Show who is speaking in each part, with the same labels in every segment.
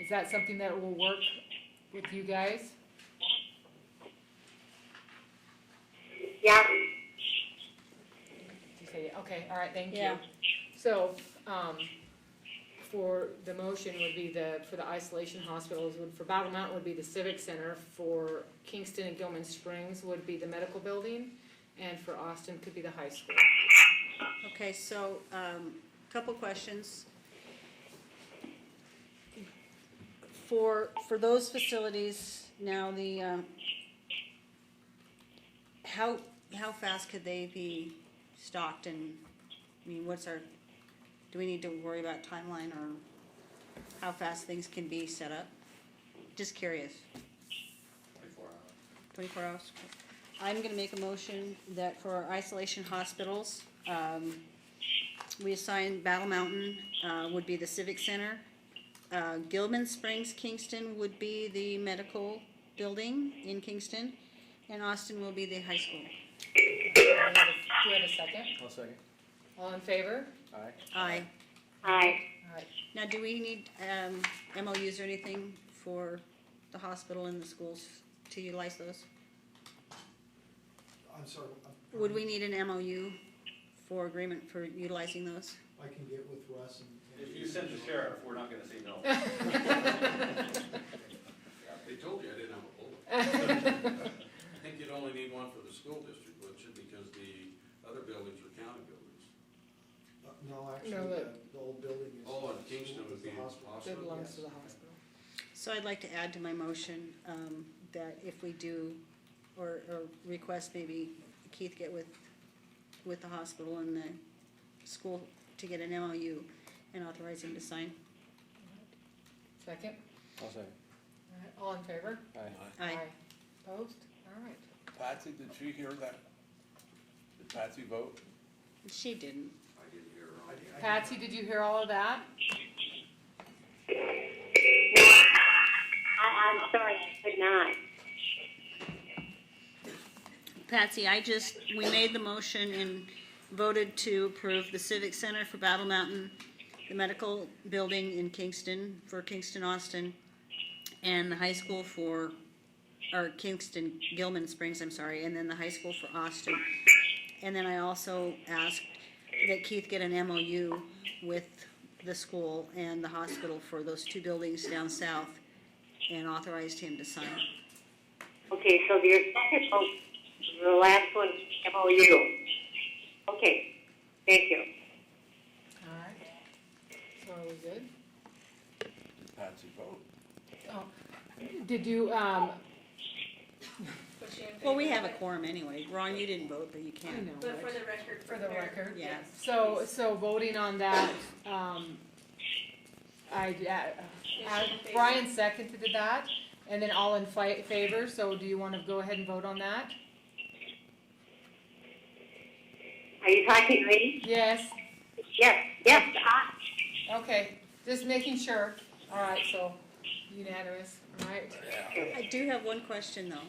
Speaker 1: Is that something that will work with you guys?
Speaker 2: Yeah,
Speaker 1: You say, okay, all right, thank you.
Speaker 3: Yeah.
Speaker 1: So, um, for, the motion would be the, for the isolation hospitals, would, for Battle Mountain would be the Civic Center, for Kingston and Gilman Springs would be the medical building, and for Austin could be the high school.
Speaker 3: Okay, so, um, couple questions. For, for those facilities, now the, um, how, how fast could they be stocked and, I mean, what's our, do we need to worry about timeline or how fast things can be set up? Just curious. Twenty-four hours. Twenty-four hours. I'm gonna make a motion that for our isolation hospitals, um, we assign Battle Mountain, uh, would be the Civic Center. Uh, Gilman Springs, Kingston would be the medical building in Kingston, and Austin will be the high school.
Speaker 1: Do we have a- do we have a second?
Speaker 4: One second.
Speaker 1: All in favor?
Speaker 4: Aye.
Speaker 3: Aye.
Speaker 2: aye.
Speaker 1: All right,
Speaker 3: Now, do we need, um, MOUs or anything for the hospital and the schools to utilize those?
Speaker 5: I'm sorry. I'm-
Speaker 3: Would we need an MOU for agreement for utilizing those?
Speaker 5: I can get with Russ and.
Speaker 6: If you send the sheriff, we're not gonna say no.
Speaker 7: They told you I didn't have a bullet. I think you'd only need one for the school district, wouldn't you, because the other buildings are county buildings.
Speaker 5: Uh, No, actually,
Speaker 1: No,
Speaker 5: the,
Speaker 1: that-
Speaker 5: the old building is.
Speaker 7: Oh, and Kingston
Speaker 5: is
Speaker 7: would
Speaker 5: the
Speaker 7: be
Speaker 5: hospital.
Speaker 1: that
Speaker 7: hospital.
Speaker 1: belongs to the hospital.
Speaker 3: So I'd like to add to my motion, um, that if we do, or, or request maybe Keith get with, with the hospital and the school to get an MOU and authorize him to sign.
Speaker 1: Second?
Speaker 4: One second.
Speaker 1: All right, All in favor?
Speaker 4: Aye.
Speaker 3: Aye.
Speaker 1: Opposed? All right.
Speaker 8: Patsy, did she hear that? Did Patsy vote?
Speaker 3: She didn't.
Speaker 7: I didn't hear her on the
Speaker 1: Patsy, did you hear all of that?
Speaker 2: I, I'm sorry, I could not.
Speaker 3: Patsy, I just, we made the motion and voted to approve the Civic Center for Battle Mountain, the medical building in Kingston, for Kingston Austin, and the high school for, or Kingston Gilman Springs, I'm sorry, and then the high school for Austin. And then I also asked that Keith get an MOU with the school and the hospital for those two buildings down south, and authorized him to sign.
Speaker 2: Okay, so your second motion, the last one, MOU. Okay, thank you.
Speaker 1: All right. So are we good?
Speaker 8: Did Patsy vote?
Speaker 1: Oh, did you, um,
Speaker 3: Well, we have a quorum anyway. Ron, you didn't vote, but you can.
Speaker 1: I know.
Speaker 9: But for the record.
Speaker 1: For the record.
Speaker 3: Yes.
Speaker 1: So, so voting on that, um, I, uh, uh, Brian seconded that, and then all in fi- favor, so do you wanna go ahead and vote on that?
Speaker 2: Are you talking to me?
Speaker 1: Yes,
Speaker 2: Yes, yes, I,
Speaker 1: okay, just making sure, all right, so unanimous, all right?
Speaker 3: I do have one question though,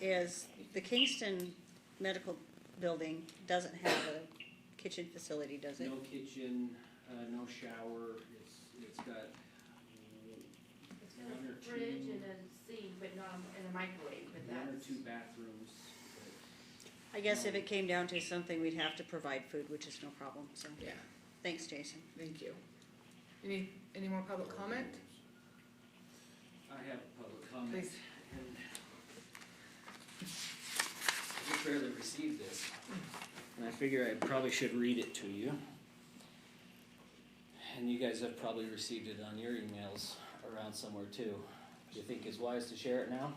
Speaker 3: is the Kingston Medical Building doesn't have a kitchen facility, does it?
Speaker 10: No kitchen, uh, no shower, it's, it's got uh,
Speaker 9: It's got a fridge and a sink, but not in a microwave, but that's.
Speaker 10: one or two bathrooms.
Speaker 3: I guess if it came down to something, we'd have to provide food, which is no problem, so.
Speaker 1: Yeah.
Speaker 3: Thanks, Jason.
Speaker 1: Thank you. Any, any more public comment?
Speaker 10: I have a public comment.
Speaker 1: Please.
Speaker 10: and I barely received this, and I figure I probably should read it to you. And you guys have probably received it on your emails around somewhere too. Do you think it's wise to share it now?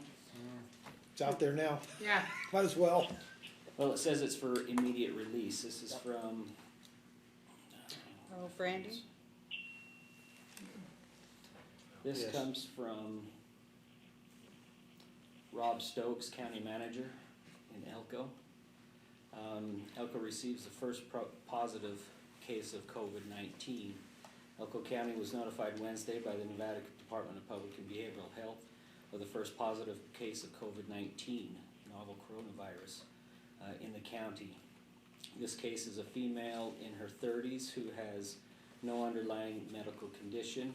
Speaker 5: It's out there now,
Speaker 1: Yeah,
Speaker 5: might as well.
Speaker 10: Well, it says it's for immediate release. This is from
Speaker 3: Oh, Brandy?
Speaker 10: This
Speaker 4: Yes.
Speaker 10: comes from Rob Stokes, county manager in Elko. Um, Elko receives the first pro- positive case of COVID nineteen. Elko County was notified Wednesday by the Nevada Department of Public and Behavioral Health of the first positive case of COVID nineteen, novel coronavirus, uh, in the county. This case is a female in her thirties who has no underlying medical condition.